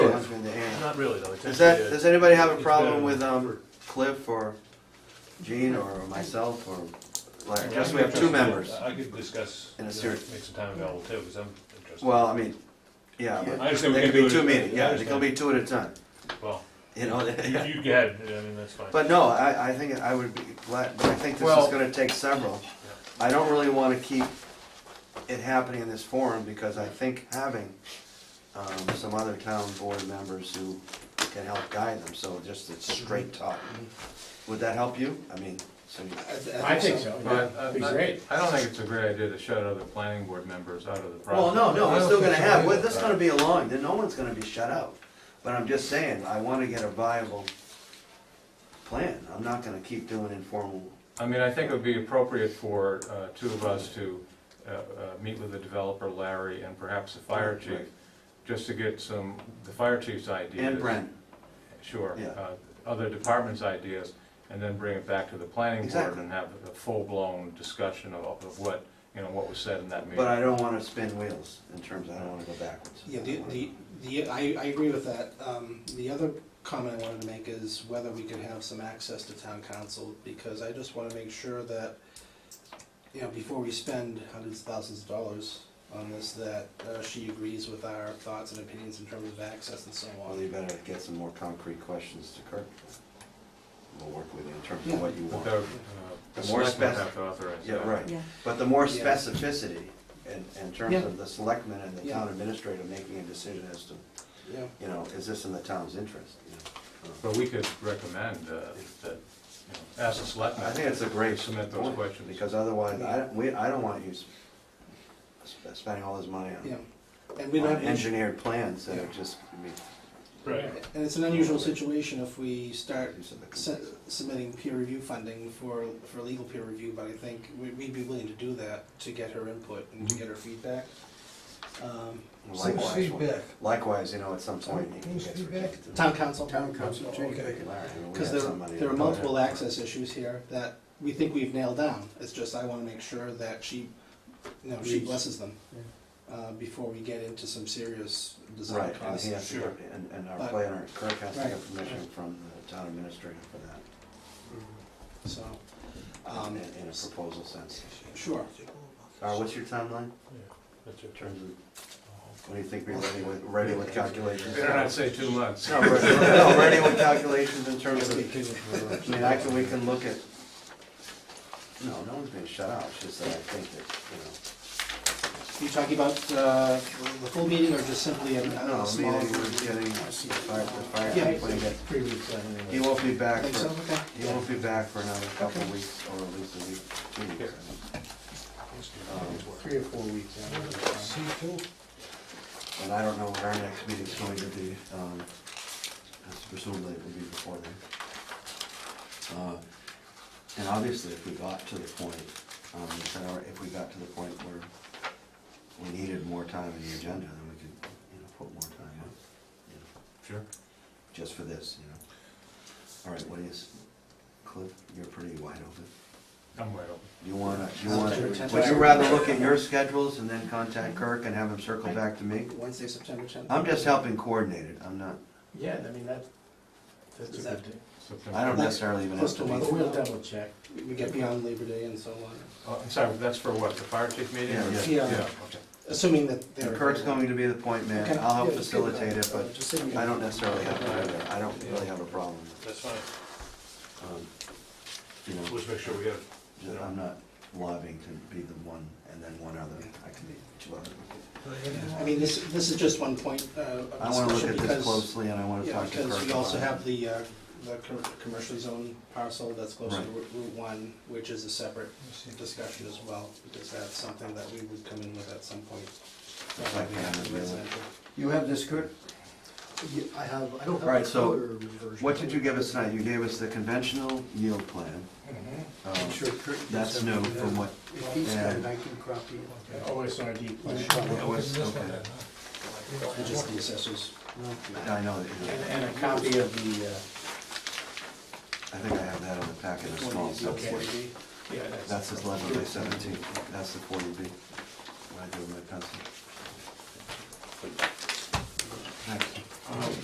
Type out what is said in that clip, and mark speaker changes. Speaker 1: Not really, though. It's
Speaker 2: Does that,
Speaker 1: actually a-
Speaker 2: does anybody have a
Speaker 1: it's
Speaker 2: problem
Speaker 1: better
Speaker 2: with,
Speaker 1: than
Speaker 2: um,
Speaker 1: Clifford.
Speaker 2: Cliff or Gene or myself or Blair?
Speaker 1: Yeah,
Speaker 2: Just
Speaker 1: I'm
Speaker 2: we have two
Speaker 1: interested.
Speaker 2: members.
Speaker 1: I could discuss, you
Speaker 2: In a
Speaker 1: know,
Speaker 2: series.
Speaker 1: make some time available too, because I'm interested.
Speaker 2: Well, I mean, yeah,
Speaker 1: I
Speaker 2: but
Speaker 1: understand we
Speaker 2: they
Speaker 1: can
Speaker 2: could
Speaker 1: do
Speaker 2: be
Speaker 1: it
Speaker 2: two
Speaker 1: at-
Speaker 2: meetings,
Speaker 1: I
Speaker 2: yeah, they could
Speaker 1: understand.
Speaker 2: be two at a time,
Speaker 1: Well,
Speaker 2: you know?
Speaker 1: you, you go ahead, I mean, that's fine.
Speaker 2: But no, I, I think I would be glad, but I think this is
Speaker 3: Well-
Speaker 2: gonna take several. I don't really wanna keep it happening in this forum, because I think having, um, some other town board members who can help guide them, so just it's straight
Speaker 4: Mm-hmm.
Speaker 2: talk. Would that help you? I mean, so, you-
Speaker 3: I think so,
Speaker 4: But,
Speaker 3: yeah,
Speaker 4: uh,
Speaker 3: it'd be
Speaker 4: I-
Speaker 3: great.
Speaker 4: I don't think it's a great idea to shut other planning board members out of the
Speaker 2: well,
Speaker 4: process.
Speaker 2: no, no,
Speaker 4: I
Speaker 2: we're
Speaker 4: don't
Speaker 2: still
Speaker 4: think
Speaker 2: gonna
Speaker 4: so
Speaker 2: have,
Speaker 4: either.
Speaker 2: well, this is gonna be a long, then no one's gonna be shut out. But I'm just saying, I wanna get a viable plan, I'm not gonna keep doing informal.
Speaker 4: I mean, I think it would be appropriate for uh, two of us to uh, uh, meet with the developer, Larry, and perhaps the fire chief,
Speaker 2: Right.
Speaker 4: just to get some, the fire chief's ideas.
Speaker 2: And Brent,
Speaker 4: Sure,
Speaker 2: Yeah.
Speaker 4: uh, other departments' ideas, and then bring it back to the planning board
Speaker 2: Exactly.
Speaker 4: and have a full-blown discussion of of what, you know, what was said in that meeting.
Speaker 2: But I don't wanna spin wheels in terms, of I don't wanna go backwards.
Speaker 5: Yeah, the, the, the, I, I agree with that. Um, the other comment I wanted to make is whether we could have some access to town council, because I just wanna make sure that, you know, before we spend hundreds of thousands of dollars on this, that, uh, she agrees with our thoughts and opinions in terms of access and so
Speaker 2: Well,
Speaker 5: on.
Speaker 2: you better get some more concrete questions to Kirk. We'll work with you in terms
Speaker 5: Yeah.
Speaker 2: of what you
Speaker 4: But
Speaker 2: want.
Speaker 4: The uh,
Speaker 2: The
Speaker 4: the
Speaker 2: more
Speaker 4: selectmen
Speaker 2: spec-
Speaker 4: have to authorize
Speaker 2: Yeah,
Speaker 4: that.
Speaker 2: right.
Speaker 6: Yeah.
Speaker 2: But the more
Speaker 5: Yeah.
Speaker 2: specificity in, in terms
Speaker 5: Yeah.
Speaker 2: of the selectmen and the town
Speaker 5: Yeah.
Speaker 2: administrator making a decision as to,
Speaker 5: Yeah,
Speaker 2: you know, is this in the town's interest? you know?
Speaker 4: But we could recommend uh, that, you know, ask the selectmen.
Speaker 2: I think it's a great
Speaker 4: Submit those
Speaker 2: point,
Speaker 4: questions.
Speaker 2: because otherwise, I, don't- we, I don't want you s- sp- spending all this money
Speaker 5: yeah.
Speaker 2: on
Speaker 5: And we
Speaker 2: on
Speaker 5: don't.
Speaker 2: engineered plans that are
Speaker 5: Yeah.
Speaker 2: just, I mean,
Speaker 1: Right.
Speaker 5: And it's an unusual situation if we start
Speaker 2: use of the-
Speaker 5: su- submitting peer review funding for, for legal peer review, but I think we- we'd be willing to do that to get her input and to get her feedback. Um,
Speaker 2: Mm-hmm. Likewise, Likewise, you know, at some point, it gets rejected.
Speaker 5: Town council.
Speaker 7: Town council, okay.
Speaker 5: Because there, there are multiple access issues here that we think we've nailed down. It's just I wanna make sure that she, you know, she
Speaker 7: Reads.
Speaker 5: blesses them uh, before we get into some serious design
Speaker 2: Right, and
Speaker 5: costs.
Speaker 2: he has to,
Speaker 1: Sure.
Speaker 2: get- and, and our
Speaker 5: But-
Speaker 2: planner, Kirk has to
Speaker 5: Right.
Speaker 2: get permission from the town administrator for that,
Speaker 5: So,
Speaker 2: in,
Speaker 5: um,
Speaker 2: in a proposal sense.
Speaker 5: sure.
Speaker 2: Uh, what's your timeline
Speaker 1: That's your
Speaker 2: in
Speaker 1: turn.
Speaker 2: terms of, when do you think we're ready with, ready with calculations?
Speaker 4: Better not say two months.
Speaker 2: No, we're- no, ready with calculations in terms of, I mean, I can, we can look at, no, no one's being shut out, it's just that I think that,
Speaker 5: You talking about uh, the full meeting or just simply a
Speaker 2: you know.
Speaker 5: a
Speaker 2: No,
Speaker 5: Oh, small?
Speaker 2: meeting, we're getting, the fire, the fire,
Speaker 5: Yeah.
Speaker 2: when you get-
Speaker 7: Three weeks out anyway.
Speaker 2: he won't be back
Speaker 5: Think so?
Speaker 2: for,
Speaker 5: Okay.
Speaker 2: He won't be back for another couple
Speaker 5: Okay.
Speaker 2: weeks, or at least a week, two weeks. I think. Um,
Speaker 7: Three or four weeks out.
Speaker 2: And I don't know when our next meeting's going to be, um, as presumably it will be before then. Uh, And obviously, if we got to the point, um, if our- if we got to the point where we needed more time in the agenda, then we could, you know, put more time on, you know,
Speaker 4: Sure.
Speaker 2: just for this, you know. All right, what is, Cliff, you're pretty wide open.
Speaker 4: I'm right open.
Speaker 2: You wanna, you
Speaker 5: I'll
Speaker 2: wanna,
Speaker 5: do it ten
Speaker 2: would you
Speaker 5: times.
Speaker 2: rather look at your schedules and then contact Kirk and have him circle back to me?
Speaker 5: Wednesday, September 10th.
Speaker 2: I'm just helping coordinate it, I'm not,
Speaker 7: Yeah, I mean, that, that's
Speaker 5: Is
Speaker 7: a
Speaker 5: that-
Speaker 7: good thing.
Speaker 4: September.
Speaker 2: I don't necessarily even have to
Speaker 7: But
Speaker 2: be.
Speaker 7: We'll double check.
Speaker 5: We- We get beyond Labor Day and so on,
Speaker 4: Oh, I'm sorry, that's for what, the fire chief meeting?
Speaker 2: Yeah,
Speaker 4: or-
Speaker 2: yeah.
Speaker 5: Yeah.
Speaker 4: okay.
Speaker 5: assuming that
Speaker 2: And
Speaker 5: they're.
Speaker 2: Kirk's going to be the point man,
Speaker 5: Okay.
Speaker 2: I'll help
Speaker 7: Yeah, just give
Speaker 2: facilitate it,
Speaker 7: uh,
Speaker 2: but
Speaker 7: just send me
Speaker 2: I
Speaker 7: a-
Speaker 2: don't necessarily have to either, I don't really have a problem.
Speaker 1: That's fine.
Speaker 2: um, You know,
Speaker 1: Let's make sure we have,
Speaker 2: that I'm not lobbying to be the one and then one other, I can be two other.
Speaker 5: I mean, this, this is just one point uh,
Speaker 2: I
Speaker 5: of
Speaker 2: wanna look
Speaker 5: discussion
Speaker 2: at this
Speaker 5: because,
Speaker 2: closely and I wanna
Speaker 5: yeah,
Speaker 2: talk to Kirk.
Speaker 5: because we also
Speaker 2: about it.
Speaker 5: have the, uh, the com- commercial zone parcel that's close to
Speaker 2: Right.
Speaker 5: Route Route 1, which is a separate discussion as well, because that's something that we would come in with at some point.
Speaker 2: Like
Speaker 5: Probably
Speaker 2: that,
Speaker 5: after
Speaker 2: really.
Speaker 5: residential.
Speaker 7: You have this, Kurt? I have, I don't have.
Speaker 2: All right,
Speaker 7: the
Speaker 2: so
Speaker 7: color version.
Speaker 2: What did you give us tonight? You gave us the conventional yield plan.
Speaker 7: I'm
Speaker 2: Um,
Speaker 7: sure Kurt gets
Speaker 2: That's
Speaker 7: something
Speaker 2: new
Speaker 7: there.
Speaker 2: from what,
Speaker 7: If he's got
Speaker 2: and-
Speaker 7: it, I can copy it.
Speaker 5: OSRD plan,
Speaker 2: what was, okay,
Speaker 5: and just the assessors.
Speaker 2: I know, that you
Speaker 7: And
Speaker 2: know,
Speaker 7: and a copy of the, uh,
Speaker 2: I think I have that on the packet, a small subset.
Speaker 5: 40B.
Speaker 7: yeah,
Speaker 2: That's this eleven by seventeen, that's the forty B, what I do with my pencil. Thanks.